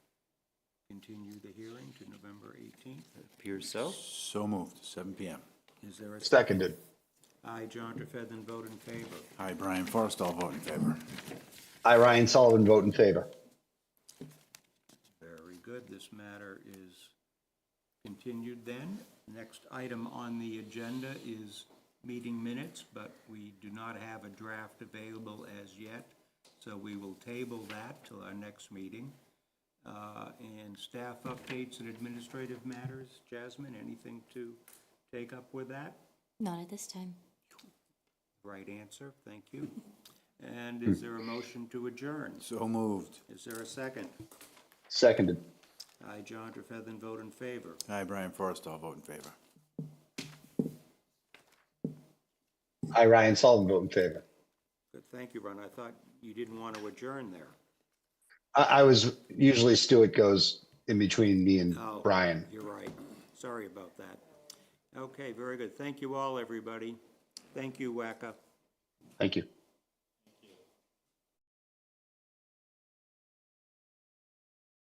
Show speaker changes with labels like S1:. S1: continue the hearing to November 18th.
S2: Appears so.
S3: So moved, seven PM.
S1: Is there a?
S4: Seconded.
S1: I, John Trefethan, vote in favor.
S3: Hi, Brian Forrest, all vote in favor.
S4: I, Ryan Sullivan, vote in favor.
S1: Very good. This matter is continued then. Next item on the agenda is meeting minutes, but we do not have a draft available as yet, so we will table that till our next meeting. Uh, And staff updates and administrative matters. Jasmine, anything to take up with that?
S5: Not at this time.
S1: Right answer, thank you. And is there a motion to adjourn?
S3: So moved.
S1: Is there a second?
S4: Seconded.
S1: I, John Trefethan, vote in favor.
S3: Hi, Brian Forrest, all vote in favor.
S4: I, Ryan Sullivan, vote in favor.
S1: Good, thank you, Ron. I thought you didn't want to adjourn there.
S4: I, I was, usually Stuart goes in between me and
S1: Oh,
S4: Brian.
S1: You're right. Sorry about that. Okay, very good. Thank you all, everybody. Thank you, WACA.
S4: Thank you.